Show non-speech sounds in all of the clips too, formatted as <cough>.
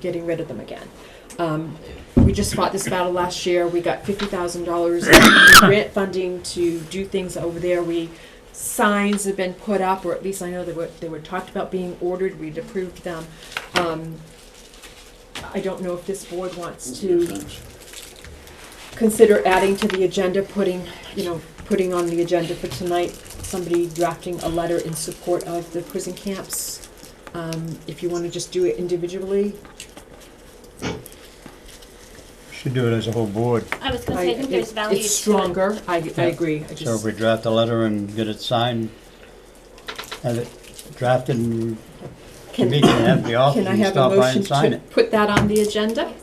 getting rid of them again. Um, we just fought this battle last year. We got fifty thousand dollars in grant funding to do things over there. We signs have been put up, or at least I know they were they were talked about being ordered. We'd approved them. Um, I don't know if this board wants to consider adding to the agenda, putting, you know, putting on the agenda for tonight, somebody drafting a letter in support of the prison camps. Um, if you wanna just do it individually, Should do it as a whole board. I was gonna I, say, I think there's it's value to it. it's stronger, I, I agree, I So if just, we draft a letter and get it signed, have it drafted and can, we can have the office <coughs> can I and have a stop by motion and sign to it put that on the agenda?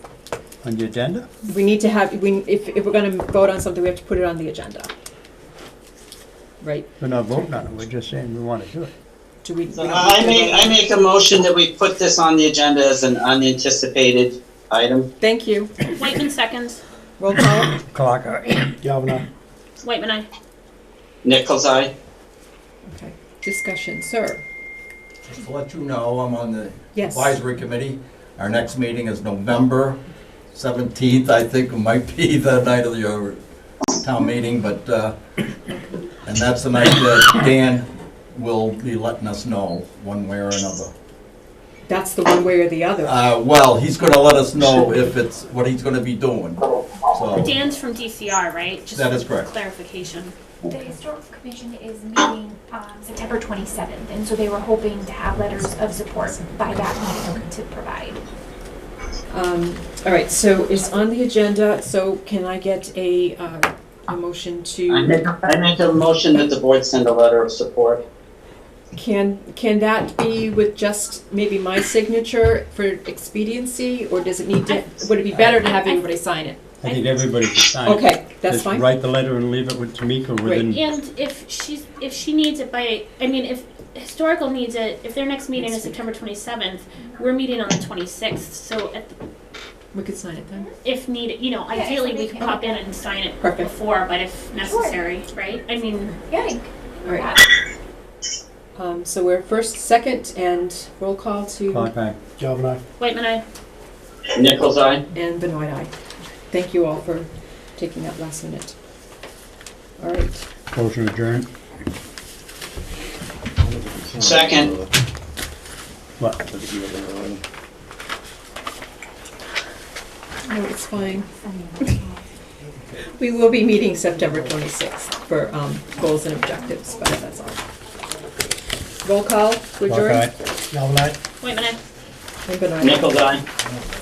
on the agenda. We need to have, we, if, if we're gonna vote on something, we have to put it on the agenda. Right, We're not voting on it, we're just saying we want to do it. do we? we So uh, don't need to I make, vote? I make a motion that we put this on the agenda as an unanticipated item. Thank you, Whiteman seconds. roll call, Clock, <coughs> Galvin, Whiteman, I. Nichols, eye. okay, discussion, sir, Just to let you know, I'm on the yes. advisory committee. Our next meeting is November 17th, I think it might be <laughs> the night of your town meeting, but, uh, and that's the night that Dan will be letting us know one way or another. That's the one way or the other. Uh, Well, he's going to let us know if it's, what he's going to be doing, so. Dan's from DCR, right? Just That is correct. Clarification. The historical commission is meeting um, September 27th, and so they were hoping to have letters of support by that meeting to provide. Um, All right, so it's on the agenda, so can I get a, uh, a motion I to, make, I make a motion that the board send a letter of support. can, can that be with just maybe my signature for expediency? Or does it need to, would it be better to have everybody sign it? I think everybody should sign it. Okay, that's Just fine. Write the letter and leave it with Tamika within, And if she's, if she needs it by, I mean, if historical needs it, if their next meeting is Next week. September twenty-seventh, we're meeting on the twenty-sixth, so at the- We could sign it then. if needed, you know, Yeah, if ideally, we we could can. pop in and sign it Perfect. before, but if necessary, right? I mean, Yeah. All right. Um, So we're first, second, and roll call to, clock eye. Whiteman, I. Nichols, eye. and Benoit, aye. Thank you all for taking that last minute. All right, Motion adjourned. Second. What? no, it's fine. We will be meeting September 26th for um, goals and objectives, but that's all. Roll call, to Clock adjourn. eye. Galvin, Whiteman, I. And Benoit. Nichols, eye.